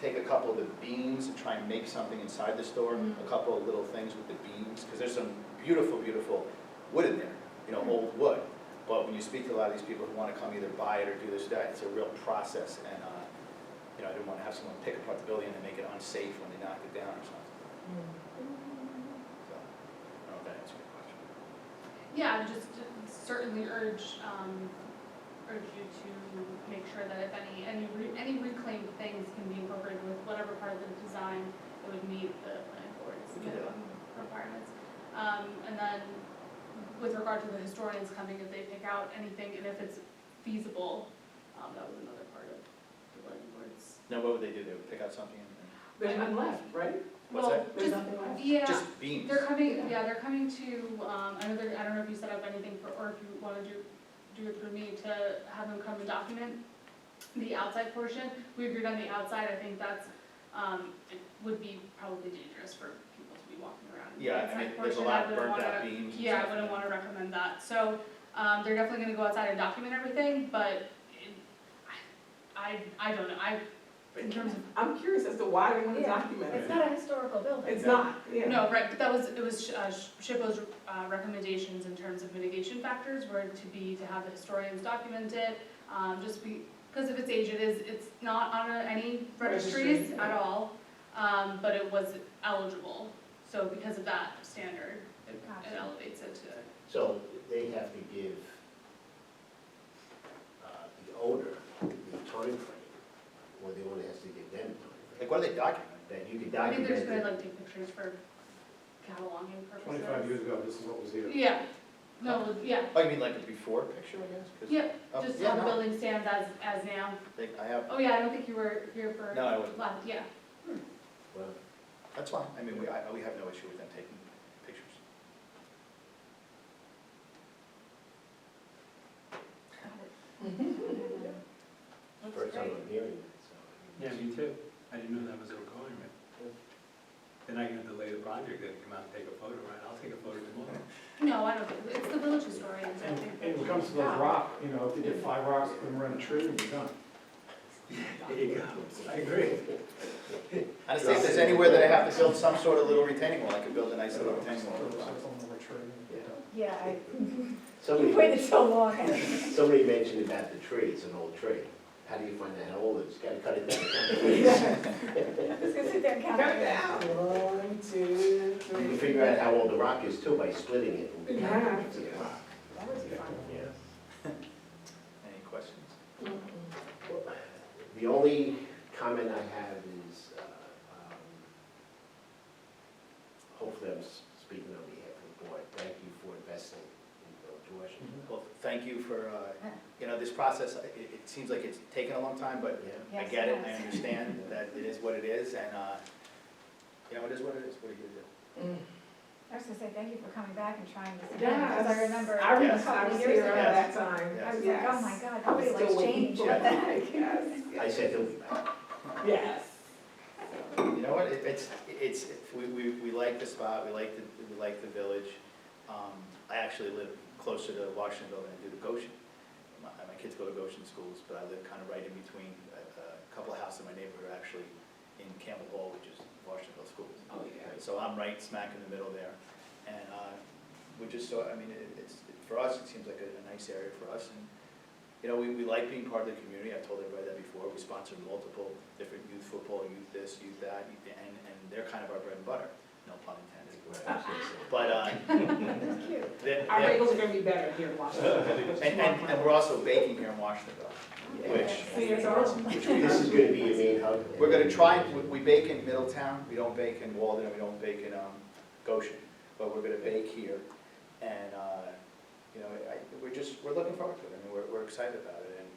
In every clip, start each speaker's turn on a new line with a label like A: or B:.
A: take a couple of the beams and try and make something inside the store,
B: Mm-hmm.
A: a couple of little things with the beams, because there's some beautiful, beautiful wood in there, you know, old wood. But when you speak to a lot of these people who want to come either buy it or do this, that, it's a real process, and, uh, you know, I didn't want to have someone pick apart the building and make it unsafe when they knock it down or something, so, I don't know if that answers your question.
B: Yeah, I just certainly urge, um, urge you to make sure that if any, any, re- any reclaimed things can be incorporated with whatever part of the design that would meet the planning board's
A: We can do that.
B: minimum requirements. Um, and then with regard to the historians coming, if they pick out anything and if it's feasible, um, that was another part of the planning board's.
A: Now, what would they do? They would pick out something and,
C: There's none left, right?
A: What's
B: Well,
A: that?
C: There's
B: just-
C: nothing left.
B: Yeah.
A: just beams?
B: They're coming, yeah, they're coming to, um, I know they're, I don't know if you set up anything for, or if you wanna do, do it through me to have them come and document the outside portion. We agreed on the outside, I think that's, um, it would be probably dangerous for people to be walking around. in the
A: Yeah, I mean,
B: outside
A: there's a
B: portion. I
A: lot of
B: wouldn't
A: burnt out
B: wanna-
A: beams. and
B: Yeah, I
A: stuff.
B: wouldn't wanna recommend that, so, um, they're definitely gonna go outside and document everything, but it, I, I don't know, I, in terms of
C: I'm curious as to why they want to
D: Yeah.
C: document
D: It's
C: it.
D: not a historical building.
C: It's not, yeah.
B: No, right, but that was, it was uh, Shippo's uh, recommendations in terms of mitigation factors were to be, to have the historians document it, um, just be, because of its age, it is, it's not on a- any registries
C: Registry,
B: at
C: yeah.
B: all, um, but it was eligible, so because of that standard, it it
D: Gotcha.
B: elevates it to,
E: So they have to give uh, the owner the timeframe, or the owner has to give them
A: Like,
E: timeframe,
A: what do they document?
E: that you can
B: I think they're just
E: document
B: gonna
E: it.
B: like take pictures for cataloging purposes.
F: Twenty-five years ago, this is what was here.
B: Yeah, no, yeah,
A: Oh, you mean like a before picture, I guess? 'Cause-
B: yeah,
A: Oh,
B: just
A: yeah,
B: how the
A: no.
B: building stands as, as now.
A: Like, I have,
B: Oh, yeah, I don't think you were here for
A: No, I wasn't.
B: last, yeah.
E: Well,
A: that's fine, I mean, we, I, we have no issue with them taking pictures.
B: That's
E: first time
B: great.
E: I'm hearing that, so. I
G: Yeah,
E: mean,
G: me too. I didn't know that was a requirement. Then I can delay the project, they come out and take a photo, right? I'll take a photo tomorrow.
B: No, I don't, think- it's the village historian, I
F: And
B: think.
F: and when it comes to those rock, you know, if you get five rocks, put them around a tree and you're done.
G: There you go. I agree.
A: I just think if there's anywhere that I have to build some sort of little retaining wall, I could build a nice little retaining wall.
F: Put rocks on the tree and you're done.
D: Yeah, I, you
E: Somebody,
D: waited so long.
E: somebody mentioned about the tree, it's an old tree. How do you find out how old it is? Gotta cut it down.
D: I was gonna sit there and count.
C: Cut it down. One, two,
E: You can
C: three.
E: figure out how old the rock is too by splitting it.
C: In half.
E: Yeah.
D: That was fun.
E: Yeah.
A: Any questions?
E: The only comment I have is, uh, um, hopefully I'm s- speaking on behalf of the board, thank you for investing in Village Washington.
A: Well, thank you for, uh, you know, this process, it, it seems like it's taken a long time, but
E: Yeah,
A: I
D: Yes,
A: get it, I
D: yes.
A: understand that it is what it is, and, uh, you know, it is what it is, what are you gonna do?
D: I was gonna say, thank you for coming back and trying this again,
C: Yes.
D: because I remember.
C: I
D: a
C: was,
D: couple
C: I was
D: years
C: here
D: ago,
C: around that
A: Yes.
C: time.
A: Yes.
D: I was like, oh my God, nobody
C: Still
D: likes
C: waiting
D: change.
C: for
D: What the
C: that.
D: heck?
C: Yes,
E: I
C: yes.
E: said, they'll be back.
C: Yes.
A: You know what, it- it's, it's, we, we, we like the spot, we like the, we like the village. Um, I actually live closer to Washingtonville than I do to Goshen. My, my kids go to Goshen schools, but I live kind of right in between, a, a couple of houses in my neighborhood are actually in Campbell Hall, which is Washingtonville schools.
C: Oh, yeah.
A: So I'm right smack in the middle there. And, uh, we just saw, I mean, it- it's, for us, it seems like a, a nice area for us. And, you know, we, we like being part of the community. I've told everybody that before. We sponsor multiple different youth football, youth this, youth that, youth- and, and they're kind of our bread and butter, no pun intended. But, uh,
D: That's cute.
A: they're,
C: Our
A: they're-
C: bagels are gonna be better here in Washington.
A: and, and, and we're also baking here in Washingtonville,
C: See,
A: which,
C: it's awesome.
A: which we,
E: This is gonna be your main hub.
A: We're gonna try, we- we bake in Middletown, we don't bake in Walden, and we don't bake in um, Goshen, but we're gonna bake here. And, uh, you know, I, we're just, we're looking forward to it, I mean, we're, we're excited about it, and,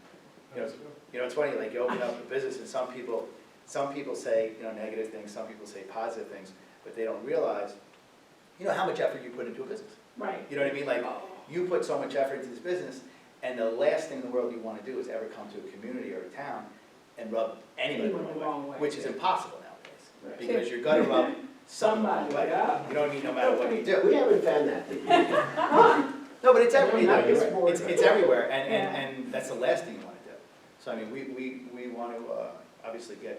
A: you know, you know, it's funny, like, you open up a business, and some people, some people say, you know, negative things, some people say positive things, but they don't realize, you know, how much effort you put into a business.
C: Right.
A: You know what I mean? Like, you put so much effort into this business, and the last thing in the world you wanna do is ever come to a community or a town and rub anyone
C: Anyone the
A: the
C: wrong
A: wrong
C: way.
A: way, which is impossible nowadays.
C: Right.
A: Because you're gonna rub someone
C: Somebody,
A: the wrong way.
C: yeah.
A: You know what I mean? No matter what you do.
E: We haven't found that.
A: No, but it's
E: No,
A: everywhere,
E: not this board.
A: it's, it's everywhere, and,
D: Yeah.
A: and, and that's the last thing you wanna do. So I mean, we, we, we wanna, uh, obviously get